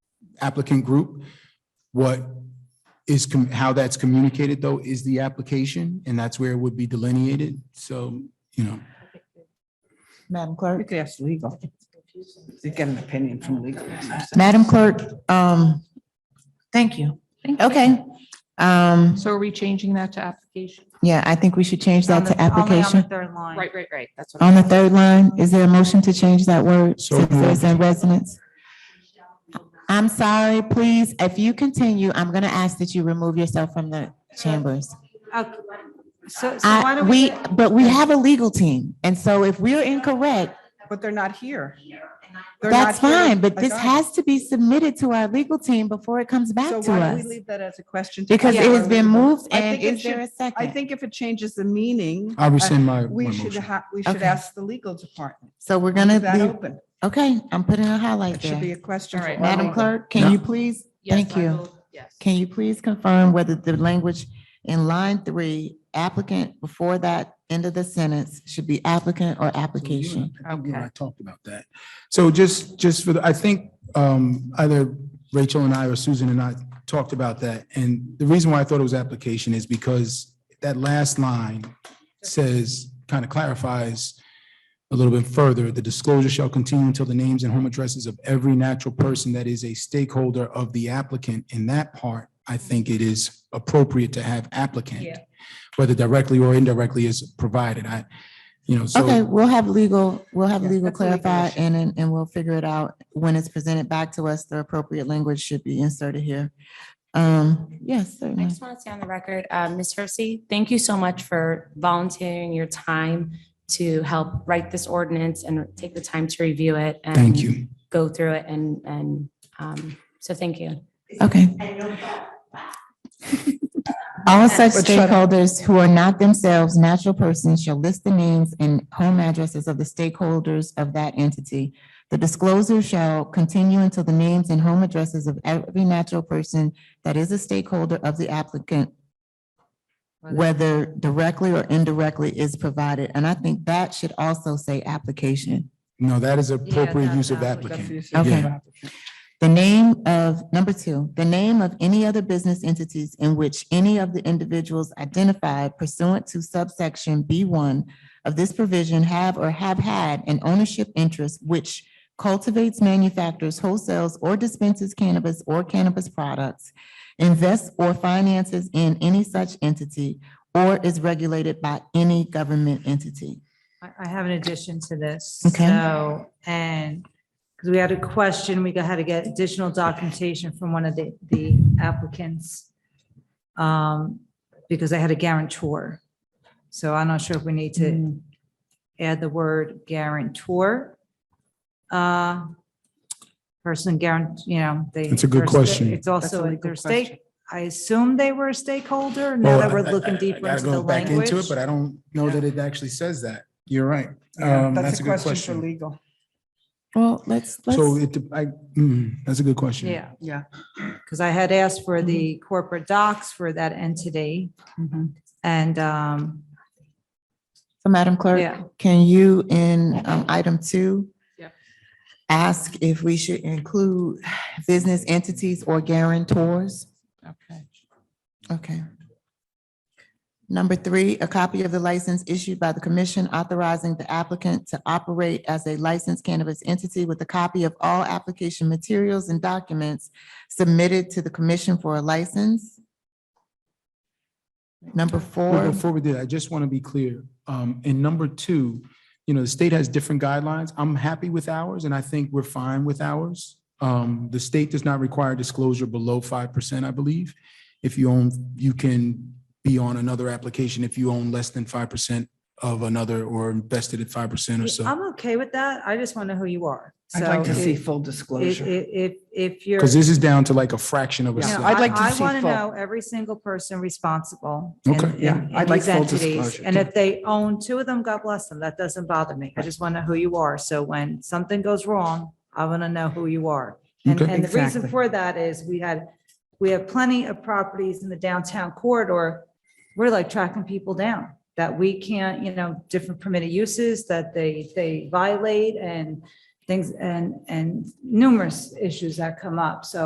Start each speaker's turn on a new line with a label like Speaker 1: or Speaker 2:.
Speaker 1: applicant group. What is, com- how that's communicated though is the application and that's where it would be delineated. So, you know,
Speaker 2: Madam
Speaker 3: You
Speaker 2: Clerk?
Speaker 3: could ask legal. You get an opinion from legal.
Speaker 2: Madam Clerk, um, thank you.
Speaker 4: Thank you.
Speaker 2: Okay. Um,
Speaker 4: So are we changing that to application?
Speaker 2: yeah, I think we should change that to application.
Speaker 5: Third line.
Speaker 4: Right, right, right. That's what.
Speaker 2: On the third line, is there a motion to change that word?
Speaker 1: So
Speaker 2: Citizens
Speaker 1: moved.
Speaker 2: and residents? I'm sorry, please, if you continue, I'm gonna ask that you remove yourself from the chambers.
Speaker 5: Okay. So, so why
Speaker 2: I,
Speaker 5: don't
Speaker 2: we,
Speaker 5: we,
Speaker 2: but we have a legal team, and so if we're incorrect,
Speaker 3: But they're not here. They're
Speaker 2: that's
Speaker 3: not here to
Speaker 2: fine, but this
Speaker 3: adopt.
Speaker 2: has to be submitted to our legal team before it comes back
Speaker 3: So
Speaker 2: to
Speaker 3: why do we
Speaker 2: us.
Speaker 3: leave that as a question? to
Speaker 2: Because it
Speaker 3: our
Speaker 2: has been
Speaker 3: legal?
Speaker 2: moved,
Speaker 3: I
Speaker 2: and
Speaker 3: think it
Speaker 2: is there a
Speaker 3: should- I
Speaker 2: second?
Speaker 3: think if it changes the meaning, uh,
Speaker 1: I rescind my. my
Speaker 3: we should
Speaker 1: motion.
Speaker 3: have, we should
Speaker 2: Okay.
Speaker 3: ask the legal department.
Speaker 2: So we're
Speaker 3: Leave
Speaker 2: gonna
Speaker 3: That
Speaker 2: leave,
Speaker 3: open.
Speaker 2: okay, I'm putting a highlight
Speaker 3: It should be
Speaker 2: there.
Speaker 3: a question.
Speaker 4: All
Speaker 3: for
Speaker 4: right.
Speaker 3: our
Speaker 2: Madam
Speaker 3: legal.
Speaker 2: Clerk,
Speaker 1: Yeah.
Speaker 2: can you please,
Speaker 4: Yes,
Speaker 2: thank
Speaker 4: I
Speaker 2: you.
Speaker 4: will- Yes.
Speaker 2: Can you please confirm whether the language in line three, applicant before that end of the sentence should be applicant or
Speaker 1: So you and I-
Speaker 2: application?
Speaker 1: I think you and I
Speaker 4: Okay.
Speaker 1: talked about that. So just, just for the, I think um, either Rachel and I or Susan and I talked about that. And the reason why I thought it was application is because that last line says, kind of clarifies a little bit further, the disclosure shall continue until the names and home addresses of every natural person that is a stakeholder of the applicant. In that part, I think it is appropriate to have applicant,
Speaker 4: Yeah.
Speaker 1: whether directly or indirectly is provided. I, you know, so.
Speaker 2: Okay, we'll have legal, we'll have
Speaker 3: Yeah,
Speaker 2: legal
Speaker 3: that's a legal
Speaker 2: clarify
Speaker 3: issue.
Speaker 2: and, and, and we'll figure it out. When it's presented back to us, the appropriate language should be inserted here. Um, yes,
Speaker 6: I
Speaker 2: certainly.
Speaker 6: just want to say on the record, uh, Ms. Hersey, thank you so much for volunteering your time to help write this ordinance and take the time to review it. and
Speaker 1: Thank you.
Speaker 6: Go through it and, and, um, so thank you.
Speaker 2: Okay. All such
Speaker 3: But shut up.
Speaker 2: stakeholders who are not themselves natural persons shall list the names and home addresses of the stakeholders of that entity. The disclosure shall continue until the names and home addresses of every natural person that is a stakeholder of the applicant, whether directly or indirectly is provided. And I think that should also say application.
Speaker 1: No, that is appropriate
Speaker 5: that-
Speaker 1: use of
Speaker 5: that
Speaker 3: That's the
Speaker 1: applicant.
Speaker 3: issue.
Speaker 2: Okay. The name of, number two, the name of any other business entities in which any of the individuals identified pursuant to subsection B one of this provision have or have had an ownership interest which cultivates, manufactures, wholesales, or dispenses cannabis or cannabis products, invests or finances in any such entity, or is regulated by any government entity.
Speaker 5: I I have an addition to this.
Speaker 2: Okay.
Speaker 5: So, and, because we had a question, we got- had to get additional documentation from one of the, the applicants. um, Because they had a guarantor. So I'm not sure if we need to
Speaker 3: Mm.
Speaker 5: add the word guarantor. uh, Person guarant, you know, they.
Speaker 1: That's a good question.
Speaker 5: It's
Speaker 3: That's a
Speaker 5: also,
Speaker 3: legal
Speaker 5: their
Speaker 3: question.
Speaker 5: stake, I assume they were a stakeholder, now that we're looking deeper into the language.
Speaker 1: But I don't know that it actually says that. You're right.
Speaker 3: Yeah,
Speaker 1: Um, That's a good
Speaker 3: for
Speaker 1: question.
Speaker 3: legal.
Speaker 2: Well, let's,
Speaker 1: So
Speaker 2: let's,
Speaker 1: it, I, mm, that's a good question.
Speaker 5: Yeah.
Speaker 3: Yeah.
Speaker 5: Because I had asked for the
Speaker 3: Mm-hmm.
Speaker 5: corporate docs for that entity
Speaker 2: Mm-hmm.
Speaker 3: Mhm.
Speaker 5: and, um,
Speaker 2: so Madam Clerk.
Speaker 5: yeah.
Speaker 2: Can you in um, item two?
Speaker 4: Yep.
Speaker 2: Ask if we should include business entities or guarantors?
Speaker 3: Okay.
Speaker 2: Okay. Number three, a copy of the license issued by the commission authorizing the applicant to operate as a licensed cannabis entity with a copy of all application materials and documents submitted to the commission for a license. Number
Speaker 1: Well,
Speaker 2: four,
Speaker 1: Before we do, that, I just want to be clear. Um, in number two, you know, the state has different guidelines. I'm happy with ours and I think we're fine with ours. Um, the state does not require disclosure below five percent, I believe. If you own, you can be on another application if you own less than five percent of another or invested at five percent or so.
Speaker 5: I'm okay with that. I just want to know who you are.
Speaker 3: I'd like
Speaker 5: So
Speaker 3: to see
Speaker 5: if-
Speaker 3: full
Speaker 5: If,
Speaker 3: disclosure.
Speaker 5: if, if you're.
Speaker 1: Because this is down to like a fraction of a
Speaker 3: Yeah,
Speaker 1: cent.
Speaker 3: I'd like to see
Speaker 5: want to
Speaker 3: full-
Speaker 5: know every single person responsible. in-
Speaker 1: Okay.
Speaker 5: in-
Speaker 3: Yeah,
Speaker 5: in
Speaker 3: I'd like
Speaker 5: these
Speaker 3: full
Speaker 5: entities.
Speaker 3: disclosure.
Speaker 5: And if they own two of them, God bless them. That doesn't bother me. I just want to know who you are. So when something goes wrong, I want to know who you are. And,
Speaker 1: Okay.
Speaker 5: and the reason
Speaker 3: Exactly.
Speaker 5: for that is we had, we have plenty of properties in the downtown corridor. We're like tracking people down that we can't, you know, different permitted uses that they, they violate and things and, and numerous issues that come up. So